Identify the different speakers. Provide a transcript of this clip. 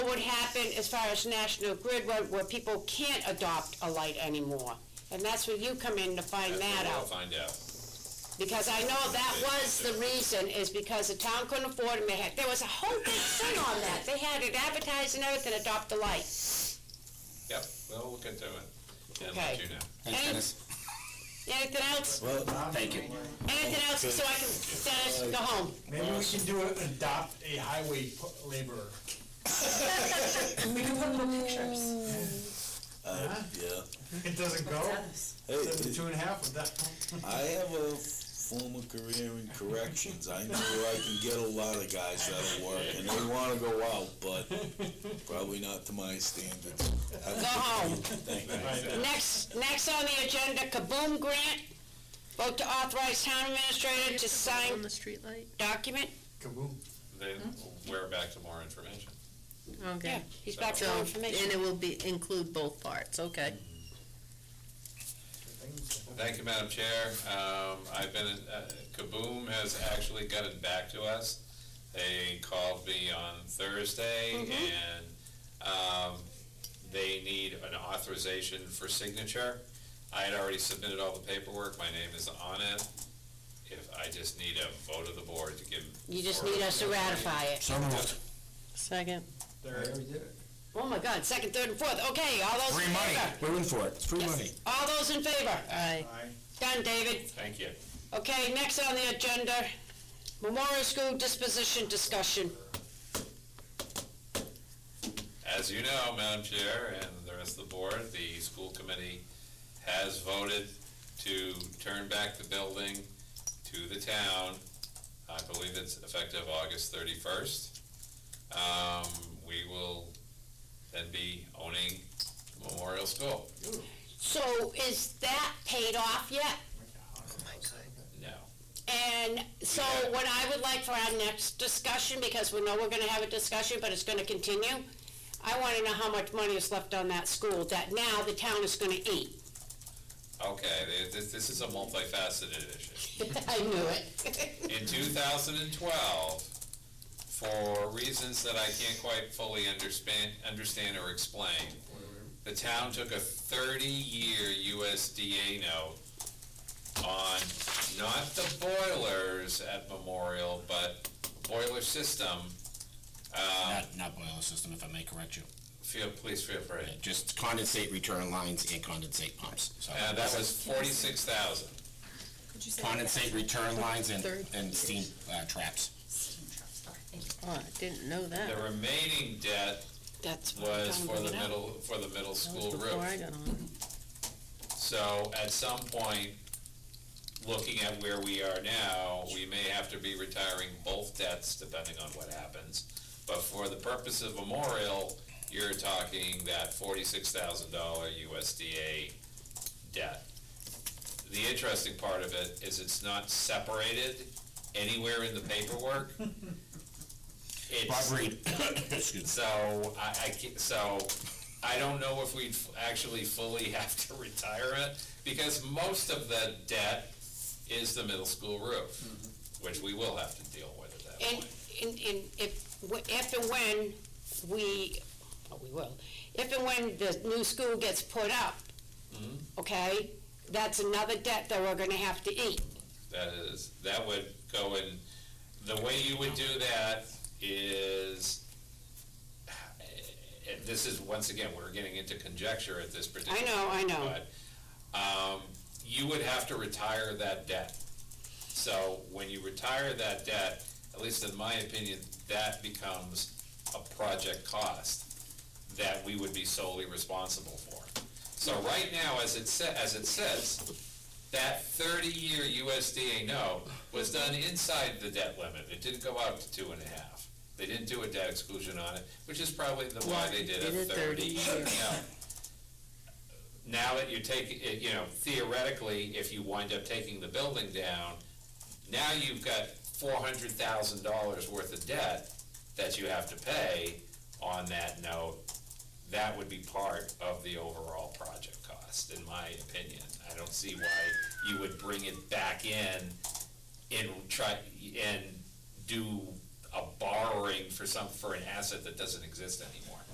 Speaker 1: would happen as far as National Grid, where, where people can't adopt a light anymore. And that's where you come in to find that
Speaker 2: We'll
Speaker 1: out.
Speaker 2: Find out.
Speaker 1: Because I know that was the reason, is because the town couldn't afford them, they had, there was a whole big thing on that, they had it advertised and everything, adopt the light.
Speaker 2: Yep, we'll look into it and let
Speaker 1: Okay.
Speaker 2: you know.
Speaker 3: Thanks,
Speaker 1: Any-
Speaker 3: Dennis.
Speaker 1: Anything else,
Speaker 3: Well, thank you.
Speaker 1: anything else, so I can, Dennis, go home.
Speaker 4: Maybe we can do it, adopt a highway p- laborer.
Speaker 5: We can put little pictures.
Speaker 6: Yeah.
Speaker 4: Uh, It doesn't go,
Speaker 6: Hey,
Speaker 4: then the two and a half of that.
Speaker 6: I have a former career in corrections. I know I can get a lot of guys that'll work, and they want to go out, but probably not to my standards.
Speaker 1: Go home.
Speaker 6: Thank you.
Speaker 1: Next, next on the agenda, Kaboom Grant. Vote to authorize town administrator to
Speaker 7: On
Speaker 1: sign
Speaker 7: the streetlight?
Speaker 1: document.
Speaker 4: Kaboom.
Speaker 2: Then
Speaker 1: Hmm?
Speaker 2: we're back to more information.
Speaker 1: Yeah,
Speaker 7: Okay.
Speaker 1: he's back for
Speaker 7: So,
Speaker 1: more
Speaker 7: and
Speaker 1: information.
Speaker 7: it will be, include both parts, okay.
Speaker 2: Thank you, Madam Chair. Um, I've been, uh, Kaboom has actually gotten back to us. They called me on Thursday
Speaker 1: Mm-hmm.
Speaker 2: and, um, they need an authorization for signature. I had already submitted all the paperwork. My name is on it. If, I just need a vote of the board to give.
Speaker 1: You just need us to ratify it.
Speaker 3: So moved.
Speaker 7: Second.
Speaker 4: There, we did it.
Speaker 1: Oh my God, second, third, and fourth. Okay, all those in
Speaker 3: Free money.
Speaker 1: favor?
Speaker 3: We're in for it. It's free money.
Speaker 1: All those in favor?
Speaker 7: Aye.
Speaker 4: Aye.
Speaker 1: Done, David.
Speaker 2: Thank you.
Speaker 1: Okay, next on the agenda, Memorial School disposition discussion.
Speaker 2: As you know, Madam Chair and the rest of the board, the school committee has voted to turn back the building to the town. I believe it's effective August thirty-first. Um, we will then be owning Memorial School.
Speaker 1: So is that paid off yet?
Speaker 5: Oh
Speaker 2: No.
Speaker 1: And so what I would like for our next discussion, because we know we're gonna have a discussion, but it's gonna continue, I wanna know how much money is left on that school that now the town is gonna eat.
Speaker 2: Okay, th- this, this is a multifaceted issue.
Speaker 1: I knew it.
Speaker 2: in 2012, for reasons that I can't quite fully understand, understand or explain, the town took a 30-year USDA note on not the boilers at Memorial, but boiler system. Uh,
Speaker 3: Not, not boiler system, if I may correct you.
Speaker 2: feel, please feel free.
Speaker 3: Yeah, Just condensate return lines and condensate pumps. So
Speaker 2: And Uh, that was 46,000.
Speaker 5: Could you say that?
Speaker 3: Condensate return lines and,
Speaker 7: Third.
Speaker 3: and steam uh, traps.
Speaker 5: Steam truck, sorry, thank you.
Speaker 7: Oh, I didn't know
Speaker 2: The
Speaker 7: that.
Speaker 2: remaining debt
Speaker 1: That's what I'm
Speaker 2: was
Speaker 1: trying to
Speaker 2: for
Speaker 1: bring
Speaker 2: the
Speaker 1: it up.
Speaker 2: middle, for the middle
Speaker 7: That
Speaker 2: school
Speaker 7: was
Speaker 2: roof.
Speaker 7: before I got on.
Speaker 2: So at some point, looking at where we are now, we may have to be retiring both debts depending on what happens. But for the purpose of memorial, you're talking that forty-six thousand dollar USDA debt. The interesting part of it is it's not separated anywhere in the paperwork.
Speaker 3: Bob
Speaker 2: It's,
Speaker 3: Reed. Excuse
Speaker 2: so I, I ca- so I don't know if we'd f- actually fully have to retire it because most of the debt is the middle school roof, which we will have to deal with at that
Speaker 1: And,
Speaker 2: point.
Speaker 1: and, and if, w- if and when we, oh, we will, if and when the new school gets put up, okay, that's another debt that we're gonna have to eat.
Speaker 2: That is, that would go in, the way you would do that is, and this is, once again, we're getting into conjecture at this particular.
Speaker 1: I know, I know.
Speaker 2: point, But, um, you would have to retire that debt. So when you retire that debt, at least in my opinion, that becomes a project cost that we would be solely responsible for. So right now, as it sa- as it says, that thirty-year USDA note was done inside the debt limit. It didn't go out to two and a half. They didn't do a debt exclusion on it, which is probably the why they did
Speaker 7: Did
Speaker 2: a
Speaker 7: it 30
Speaker 2: thirty-year note. Now that you take, it- you know, theoretically, if you wind up taking the building down, now you've got four hundred thousand dollars worth of debt that you have to pay on that note. That would be part of the overall project cost, in my opinion. I don't see why you would bring it back in and try, and do a borrowing for some, for an asset that doesn't exist anymore.